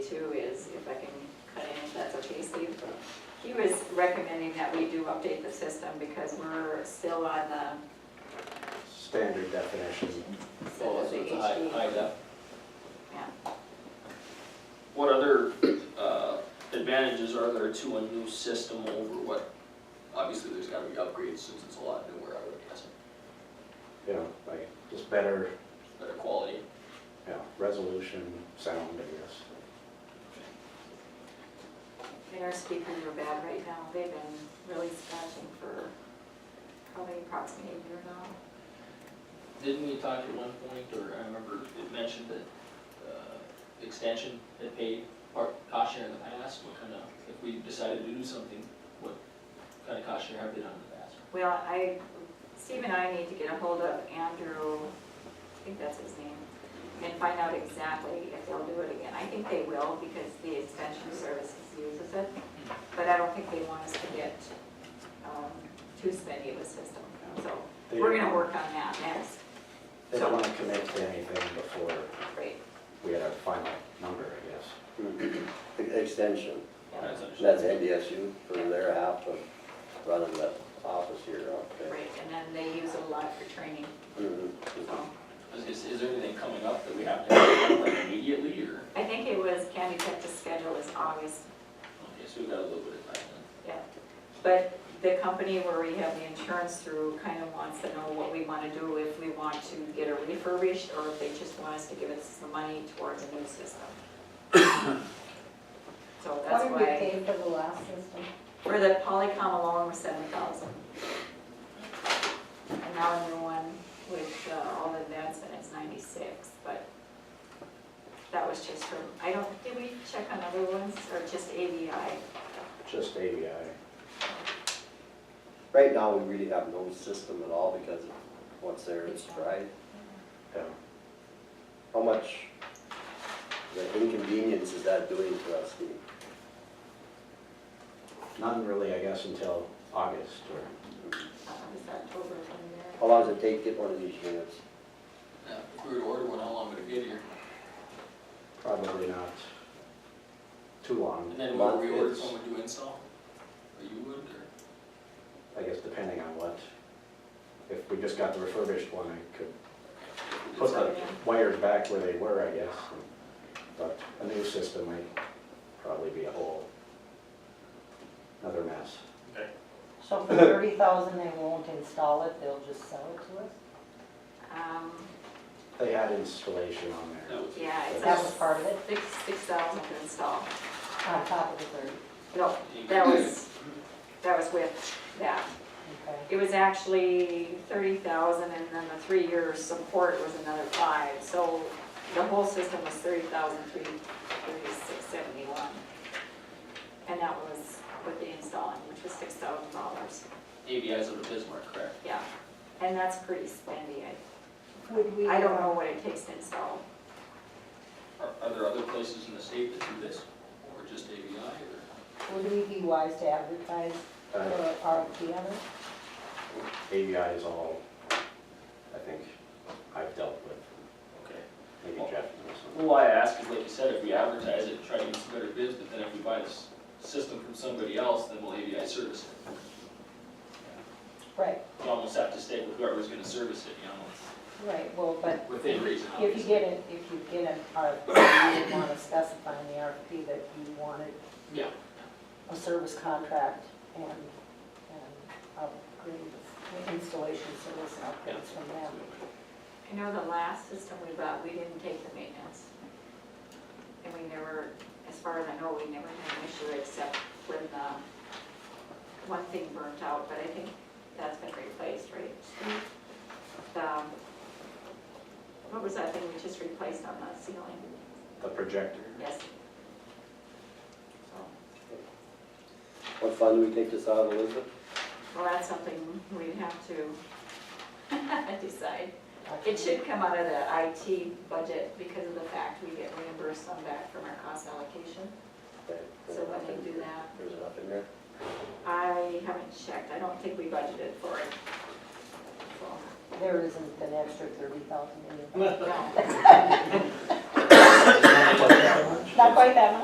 too is, if I can cut in, if that's okay, Steve, but he was recommending that we do update the system because we're still on the, Standard definition. still Oh, at so the it's a high, HD. high def. Yeah. What other, uh, advantages are there to a new system over what, obviously, there's gotta be upgrades since it's a lot newer, I would guess, you know, like, just better, better quality. you know, resolution, sound, I guess. And our speakers are bad right now, they've been really scratching for probably approximately a year now. Didn't we talk at one point, or I remember it mentioned that, uh, extension had paid part cost share in the past, what kind of, if we decided to do something, what kind of cost share have they done in the past? Well, I, Steve and I need to get a hold of Andrew, I think that's his name, and find out exactly if they'll do it again. I think they will because the extension services uses it, but I don't think they want us to get, um, too spendy of a system. So They we're don't- gonna work on that next, They don't want to commit to anything before great. we had our final number, I guess. Extension, Yeah, That's understood. that's NDSU for their half of running the office here, okay? Great, and then they use it a lot for training, Mhm. so. Is, is there anything coming up that we have to have like immediately, or, I think it was, Candy Tech to schedule is August okay, so we've got a little bit of time then. Yeah, but the company where we have the insurance through kind of wants to know what we want to do, if we want to get it refurbished, or if they just want us to give us some money towards a new system. So What that's did we why, pay for the last system? for the Polycom alone was seven thousand. And now a new one with uh, all the advancement is ninety-six, but that was just for, I don't, did we check on other ones, or just AVI? Just ABI. Right now, we really have no system at all because of what's there is right. yeah. How much, the inconvenience is that doing to us, Steve? None really, I guess, until August or, Uh, Was that October from there? How long does it take to get one of these units? Yeah, if we were to order one, how long would it get here? probably not too long, And then Well, when we order it's- someone would do install? Or you would, or? I guess, depending on what. If we just got the refurbished one, I could if put it's- the wires back where they were, I guess. But a new system might probably be a whole, another mess. So for thirty thousand, they won't install it, they'll just sell it to us? Um, They had installation on there. That was- yeah, it's That was like part of it, six, six thousand to install. on top of the thirty, No, that was, that was with that. okay? It was actually thirty thousand and then the three-year support was another five. So the whole system was thirty thousand three, thirty-six seventy-one. And that was with the installing, which was six thousand dollars, ABI's out of Bismarck, correct? yeah. And that's pretty spendy. I, Would we? I don't know what it takes to install. Are, are there other places in the state that do this, or just ABI, or? uh, Would we be wise to advertise for Uh, RFP on it? ABI is all, I think, I've dealt with, Okay. maybe Jeff knows some. Well, why I ask is, like you said, if we advertise it, try to get some better bids, but then if we buy this system from somebody else, then will ABI service it? Right, You almost have to stay with whoever's gonna service it, you know, right, well, but within reason, If obviously. you get it, if you get an RFP, you would wanna specify in the RFP that you wanted Yeah. a service contract and, and upgrades, installation service and upgrades from them. I know the last system we bought, we didn't take the maintenance. And we never, as far as I know, we never had an issue except when the one thing burnt out, but I think that's been replaced, right? Steve? The, what was that thing we just replaced on the ceiling? The projector, Yes. What fund do we take this out of, Elizabeth? Well, that's something we'd have to decide. It should come out of the IT budget because of the fact we get reimbursed some back from our cost allocation, Okay, so let me do that. There's enough in there. I haven't checked, I don't think we budgeted for it. So, There isn't an extra thirty thousand in it. No. not quite that much. Not quite that much.